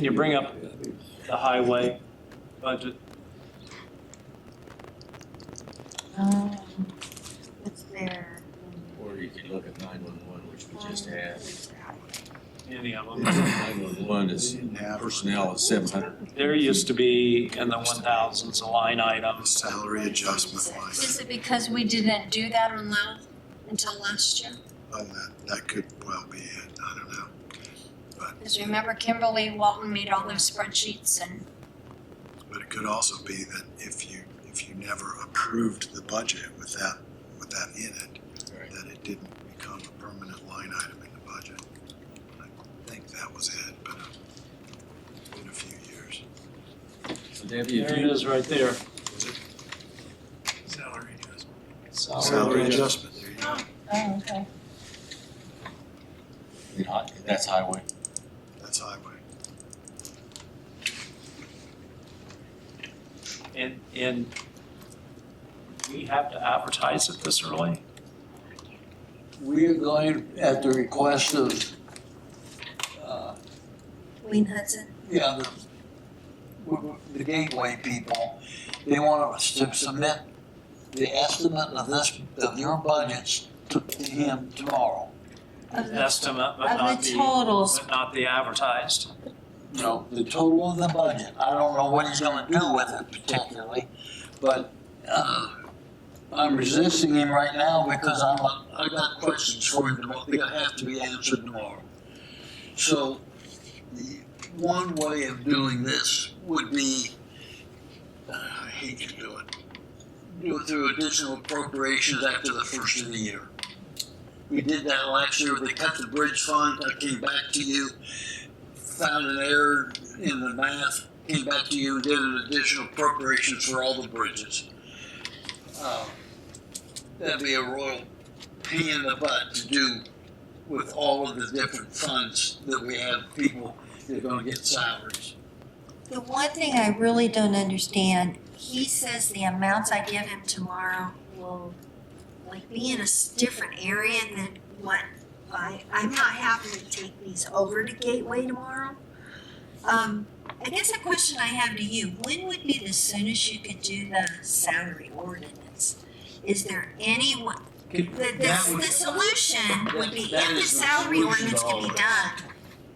You bring up the highway budget. Um, It's there. Or you could look at nine-one-one, which we just had. Any of them. Nine-one-one is personnel is seven hundred. There used to be in the one thousands a line item. Salary adjustment line, Is it because we didn't do that on loan until last year? and that, that could well be it, I don't know. Because remember Kimberly Walton made all those spreadsheets and But it could also be that if you, if you never approved the budget with that, with that in it, Right. that it didn't become a permanent line item in the budget. I think that was it, but uh, in a few years. So Debbie, There if it you, is right there. Salary adjustment. Salary Salary adjustment. adjustment, there you go. Oh, okay. and hi- that's highway. That's highway. And, and we have to advertise it this early? We are going at the request of, uh, Wayne Hudson. yeah, the, w- w- the gateway people. They want us to submit the estimate of this, of your budgets to to him tomorrow. Of the, Estimate, but of not the the, totals, but not the advertised. You know, the total of the budget. I don't know what he's gonna do with it particularly, but, uh, I'm resisting him right now because I'm, I got questions for him tomorrow. They have to be answered tomorrow. So the- one way of doing this would be, uh, I hate to do it, do it through additional appropriations after the first of the year. We did that last year. They cut the bridge fund. I came back to you, found an error in the math, came back to you, did an additional appropriations for all the bridges. Um, That'd be a royal pain in the butt to do with all of the different funds that we have people that are gonna get salaries. The one thing I really don't understand, he says the amounts I give him tomorrow will like be in a s- different area than what I, I'm not having to take these over to Gateway tomorrow. Um, I guess a question I have to you, when would be the soonest you could do the salary ordinance? Is there any, one- the, That the, would- the solution would be That if the is the salary solution ordinance to could all be of it. done,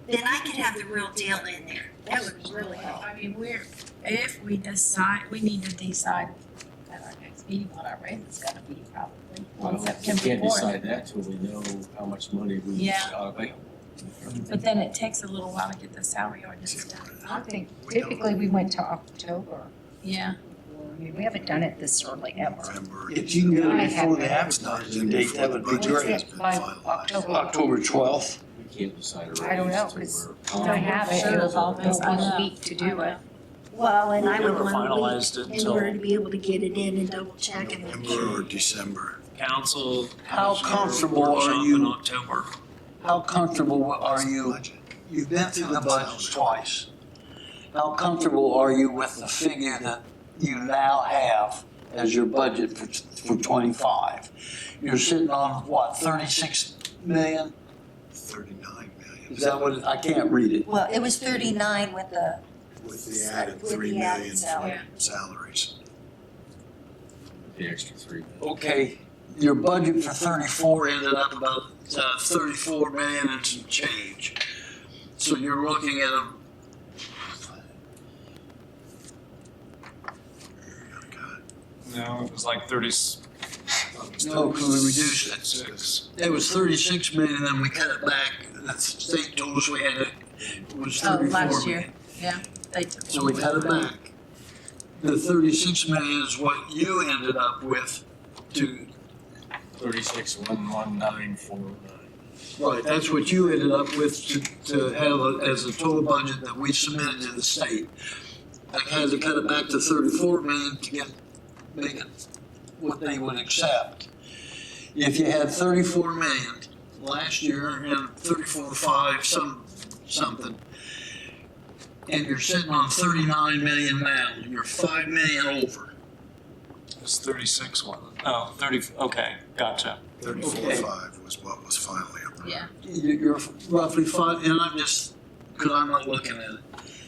then I could have the real deal in there. That would be really helpful. I mean, we're, if we decide, we need to decide at our next meeting what our rate is gonna be probably Well, on we September can't fourth. decide that till we know how much money we Yeah. got available. But then it takes a little while to get the salary ordinance done. I think typically we went to October. Yeah, I mean, we haven't done it this early ever. November. If you can get I it before the have- advertising date, that would be What is great. it, by Finalized. October? October twelfth. We can't decide a raise. I don't know, till 'cause we're We don't have it, it was all confident. one week to do it. Well, and I We would never want finalized to it be, in order until to be able to get it in and double check and make November sure. or December. council. How commissioner comfortable are workshop you- In October. How comfortable are you, Budget. you've been through the budgets twice. How comfortable are you with the figure that you now have as your budget for, for twenty-five? You're sitting on what, thirty-six million? 39 million. Is that what, it- I can't read it. well, it was thirty-nine with the, With the added With the 3 added million salary. for salaries. The extra three. Okay, your budget for thirty-four ended up about uh, thirty-four million and some change. So you're looking at a, No, it was like thirty. no, because we reduced it. Six. It was thirty-six million, and then we cut it back. The state told us we had to, it was Oh, thirty-four million. last year. they took. So we cut it back. The thirty-six million is what you ended up with to, Thirty-six, one, one, nine, four, nine. right, that's what you ended up with to, to have as a total budget that we submitted to the state. I had to cut it back to thirty-four million to get, make it what they would accept. If you had thirty-four million last year and thirty-four, five, some, something, and you're sitting on thirty-nine million now, you're five million over. It was thirty-six one. Oh, thirty, okay, gotcha. 34.5 was what was finally approved. Yeah. you're roughly five, and I'm just, because I'm not looking at it.